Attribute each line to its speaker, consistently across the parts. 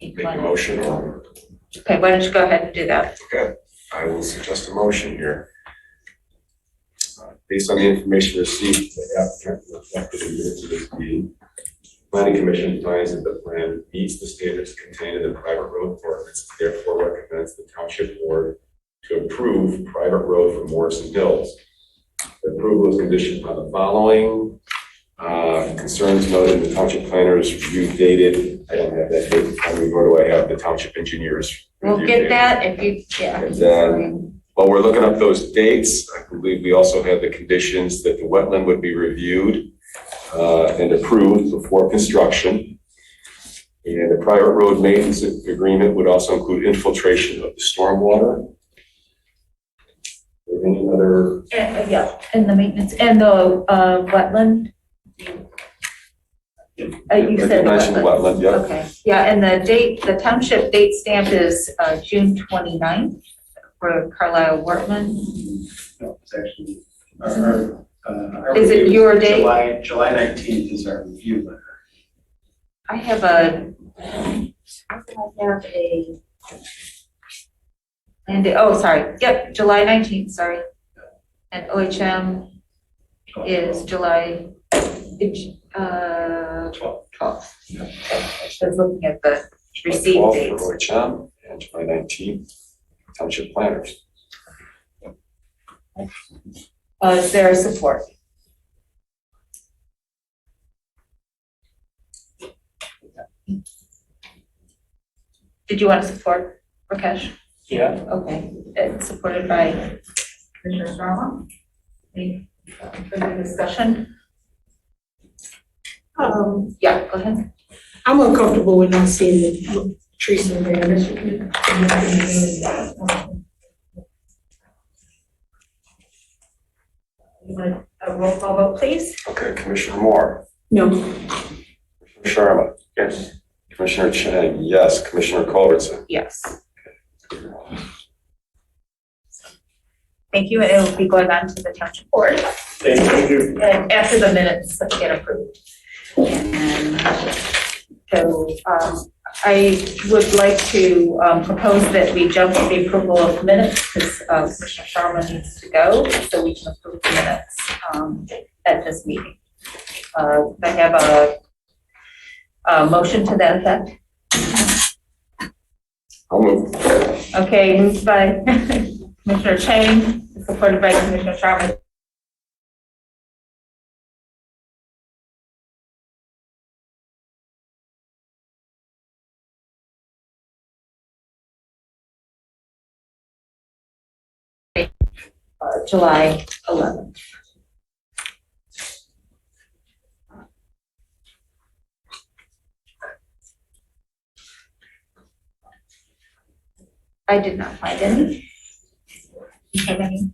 Speaker 1: make a motion or,
Speaker 2: Okay, why don't you go ahead and do that?
Speaker 1: okay, I will suggest a motion here. Uh, Based on the information received, the applicant reflected in minutes of this meeting. Planning Commission finds that the plan meets the standards contained in the private road ordinance, therefore recommends the township board to approve private road for Morrison Hills. The Approval is conditioned on the following, uh, concerns noted in the township planner's review dated, I don't have that date, I mean, nor do I have the township engineer's
Speaker 2: We'll
Speaker 1: review
Speaker 2: get
Speaker 1: date.
Speaker 2: that if you, yeah.
Speaker 1: And then- While we're looking up those dates, I believe we also have the conditions that the wetland would be reviewed uh, and approved before construction. And the private road maintenance agreement would also include infiltration of the stormwater. Or Any other,
Speaker 3: And, uh, yeah, and the maintenance, and the, uh, wetland. Uh, you said the
Speaker 1: Recognition
Speaker 3: wetland.
Speaker 1: wetland, yeah.
Speaker 3: Okay, yeah, and the date, the township date stamp is, uh, June twenty-ninth for Carlisle Wortman.
Speaker 4: No, it's actually, our, our, uh. our
Speaker 3: Is it
Speaker 4: review-
Speaker 3: your date?
Speaker 4: July, July nineteenth is our review letter.
Speaker 3: I have a, I have a. And, oh, sorry, yep, July nineteenth, sorry. And OHM
Speaker 4: July
Speaker 3: is July, it's, uh,
Speaker 4: Twelve.
Speaker 3: 12th. I was looking at the receipt
Speaker 1: July 12th
Speaker 3: dates.
Speaker 1: for OHM and July 19th, township planners.
Speaker 3: Uh, is there support? Did you want to support Rakesh?
Speaker 4: Yeah.
Speaker 3: Okay, it's supported by Commissioner Sharma. Any further discussion?
Speaker 5: Um,
Speaker 3: Yeah, go ahead.
Speaker 5: I'm uncomfortable with not seeing the trees in there.
Speaker 3: You want A roll call vote, please?
Speaker 1: Okay, Commissioner Moore.
Speaker 5: No,
Speaker 1: Commissioner Sharma? Yes. Commissioner Chang, yes. Commissioner Culbertson?
Speaker 3: Yes. Thank you, and it will be going on to the township board.
Speaker 4: Thank you.
Speaker 3: And after the minutes get approved. And so um, I would like to um, propose that we jump to the approval of minutes because Commissioner Sharma needs to go, so we can approve the minutes um, at this meeting. Uh, I have a, a motion to that effect.
Speaker 1: I'll move.
Speaker 3: Okay, moved by Commissioner Chang, supported by Commissioner Sharma. Uh, July 11th. I did not find any. You have any?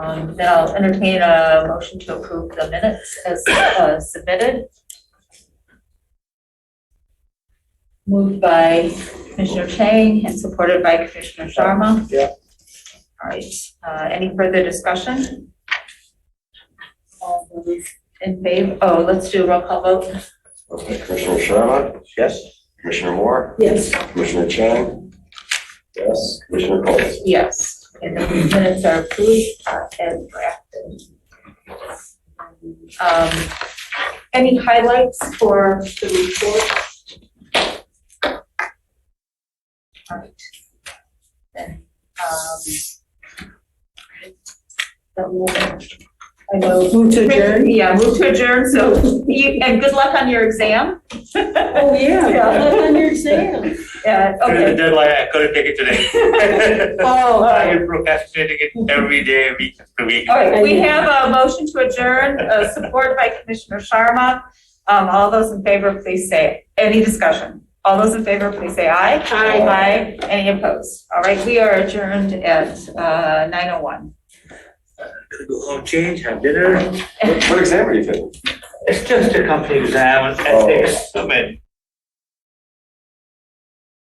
Speaker 3: Um, Then I'll entertain a motion to approve the minutes as uh, submitted. Moved by Commissioner Chang and supported by Commissioner Sharma.
Speaker 4: Yeah.
Speaker 3: All right, uh, any further discussion? All those in favor, oh, let's do a roll call vote.
Speaker 1: Okay, Commissioner Sharma?
Speaker 4: Yes.
Speaker 1: Commissioner Moore?
Speaker 5: yes.
Speaker 1: Commissioner Chang? Yes. Commissioner Culbertson?
Speaker 3: Yes, and the minutes are approved uh, and drafted. Um, Any highlights for the report? All right. Then, um, that will- I know.
Speaker 5: Move to adjourn?
Speaker 3: Yeah, move to adjourn, so, you- and good luck on your exam.
Speaker 5: Oh, yeah,
Speaker 3: Yeah.
Speaker 5: on your exam.
Speaker 3: Yeah,
Speaker 6: Due to the
Speaker 3: okay.
Speaker 6: deadline, I couldn't take it today.
Speaker 3: Oh, all right.
Speaker 6: I've been procrastinating it every day, week after week.
Speaker 3: All right, we have a motion to adjourn, uh, support by Commissioner Sharma. Um, All those in favor, please say, any discussion? All those in favor, please say aye.
Speaker 5: Aye.
Speaker 3: Aye, any opposed? All right, we are adjourned at uh, 9:01.
Speaker 6: Gotta Go home, change, have dinner.
Speaker 1: What what exam are you taking?
Speaker 6: Oh. It's just a company exam, and I think it's so many.